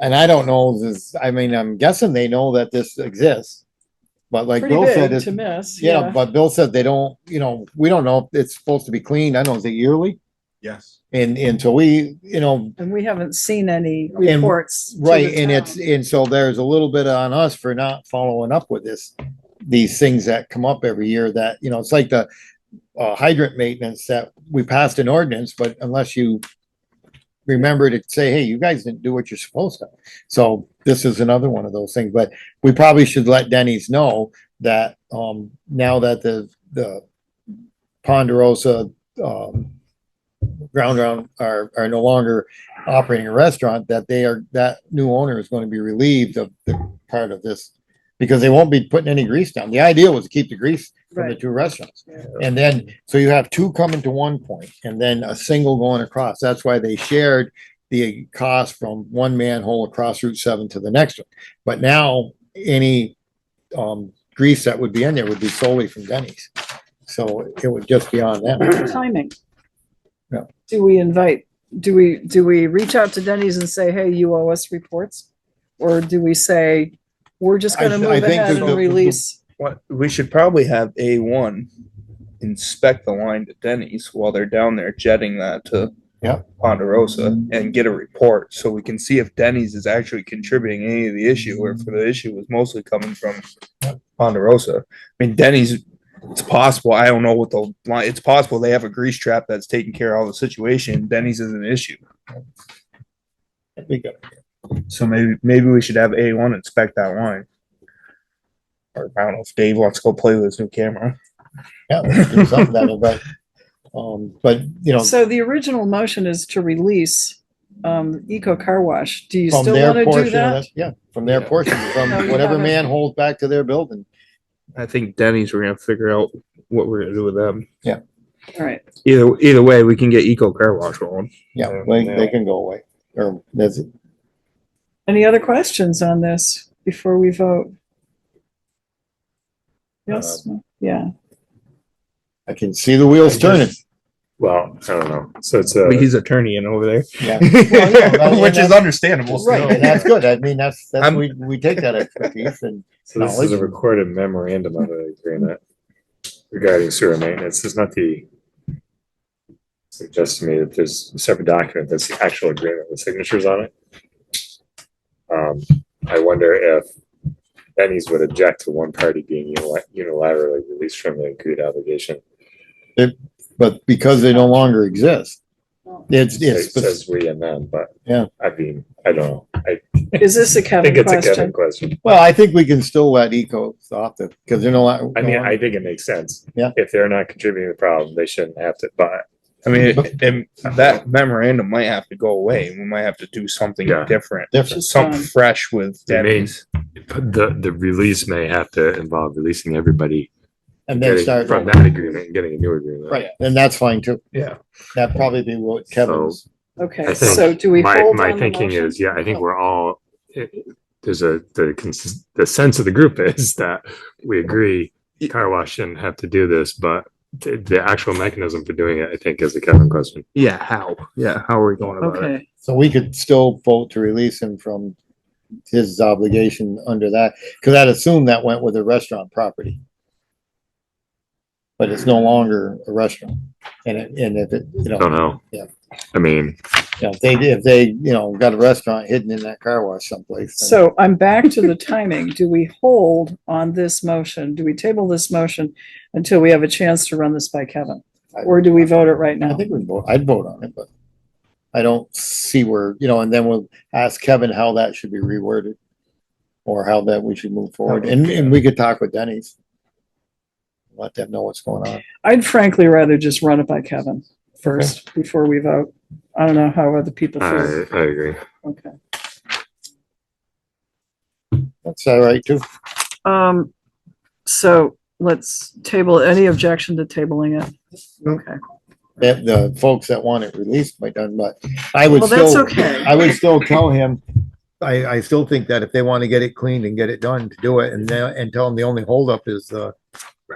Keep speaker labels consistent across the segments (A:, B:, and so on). A: And I don't know this, I mean, I'm guessing they know that this exists. But like
B: Pretty
A: Bill said,
B: big
A: it's,
B: to miss,
A: yeah,
B: yeah.
A: but Bill said they don't, you know, we don't know if it's supposed to be cleaned. I don't know, is it yearly?
C: Yes.
A: And, and so we, you know,
B: And we haven't seen any
A: And-
B: reports. to
A: right,
B: the
A: and it's,
B: town.
A: and so there's a little bit on us for not following up with this. These things that come up every year that, you know, it's like the uh, hydrant maintenance that we passed an ordinance, but unless you remember to say, hey, you guys didn't do what you're supposed to. So this is another one of those things, but we probably should let Denny's know that, um, now that the, the Ponderosa, um, ground round are, are no longer operating a restaurant, that they are, that new owner is going to be relieved of the part of this because they won't be putting any grease down. The idea was to keep the grease from the
B: Right.
A: two restaurants.
B: Yeah.
A: And then, so you have two coming to one point and then a single going across. That's why they shared the cost from one manhole across Route seven to the next one. But now any um grease that would be in there would be solely from Denny's. So it would just be on them.
B: Timing.
A: Yeah.
B: Do we invite, do we, do we reach out to Denny's and say, hey, you owe us reports? Or do we say, we're just
A: I
B: gonna
A: th-
B: move
A: I think
B: ahead
A: that the-
B: and release?
C: What, we should probably have A one inspect the line to Denny's while they're down there jetting that to
A: Yeah.
C: Ponderosa and get a report so we can see if Denny's is actually contributing any of the issue or if the issue was mostly coming from Ponderosa. I mean, Denny's, it's possible, I don't know what the line, it's possible they have a grease trap that's taking care of all the situation. Denny's is an issue.
A: We got it.
C: So maybe, maybe we should have A one inspect that line. Or I don't know if Dave wants to go play with his new camera.
A: Yeah, we should do something that, way, but um, but you know,
B: So the original motion is to release, um, Eco Car Wash. Do you
A: from
B: still
A: their
B: wanna do
A: portion,
B: that?
A: of it- yeah, from their
C: Yeah.
A: portion, from
B: No, you
A: whatever
B: haven't.
A: manhole back to their building.
C: I think Denny's, we're gonna figure out what we're gonna do with them.
B: All right,
C: Either, either way, we can get Eco Car Wash rolling.
A: Yeah,
C: Yeah.
A: they, they can go away or that's it.
B: any other questions on this before we vote? Yes,
A: Uh,
B: yeah,
A: I can see the wheels turning.
D: Well, I don't know. So it's a,
C: He's attorney in over there.
A: Yeah. that-
C: Which is understandable.
A: Right, and that's good. I mean, that's, that's,
C: I'm-
A: we, we take that expertise and
D: so this is a
A: knowledge.
D: recorded memorandum of agreement regarding sewer maintenance. It's not the suggests to me that there's a separate document that's the actual agreement with signatures on it. Um, I wonder if Benny's would object to one party being uni- unilaterally released from the agreed obligation.
A: but because they no longer exist. It's,
D: It
A: it's,
D: says we and them, but
A: Yeah.
D: I mean, I don't know. I
B: is this a
D: think
B: Kevin
D: it's a Kevin
B: question?
D: question.
A: well, I think we can still let Eco off the, because they're no. lo-
D: I mean,
A: no-
D: I think it makes sense.
A: Yeah.
D: If they're not contributing to the problem, they shouldn't have to buy.
C: I mean, and that memorandum might have to go away. We might have to do something
D: Yeah.
C: different,
A: Different.
C: something fresh with
D: It
C: Denny's.
D: The, the release may have to involve releasing everybody
A: And then
D: getting
A: start,
D: from that agreement and getting a new agreement.
A: right, and that's fine too.
C: Yeah.
A: That'd probably be what Kevin's.
B: Okay,
D: I think
B: so do we
D: My,
B: hold on
D: my
B: the
D: thinking
B: motion?
D: is, yeah, I think we're all, it- it- there's a, the, cons- the sense of the group is that we agree car wash shouldn't have to do this, but the, the actual mechanism for doing it, I think, is the Kevin question.
C: Yeah, how? Yeah, how are we going about it?
B: Okay,
A: So we could still vote to release him from his obligation under that, because I'd assume that went with a restaurant property. But it's no longer a restaurant, and it, and if it, you know.
D: Don't know.
A: Yeah.
D: I mean,
A: Yeah, if they, if they, you know, got a restaurant hidden in that car wash someplace. then-
B: so I'm back to the timing. Do we hold on this motion? Do we table this motion until we have a chance to run this by Kevin? Or do we vote it right
A: I
B: now?
A: think we vote, I'd vote on it, but I don't see where, you know, and then we'll ask Kevin how that should be reworded. Or how that we should move forward, and, and we could talk with Denny's. Let them know what's going on.
B: I'd frankly rather just run it by Kevin first before we vote. I don't know how other people
D: I,
B: feel.
D: I agree.
B: Okay.
A: That's all right too.
B: Um, so let's table, any objection to tabling it? Okay,
A: that the folks that want it released might done, but I would
B: well, that's
A: still,
B: okay.
A: I would still tell him. I, I still think that if they want to get it cleaned and get it done, to do it and then, and tell them the only holdup is the,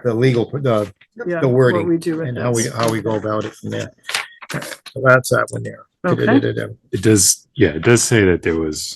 A: the legal, the,
B: Yeah,
A: the wording
B: what we do with
A: and how we,
B: this.
A: how we go about it from there. So that's that one there.
B: Okay.
D: It does, yeah, it does say that there was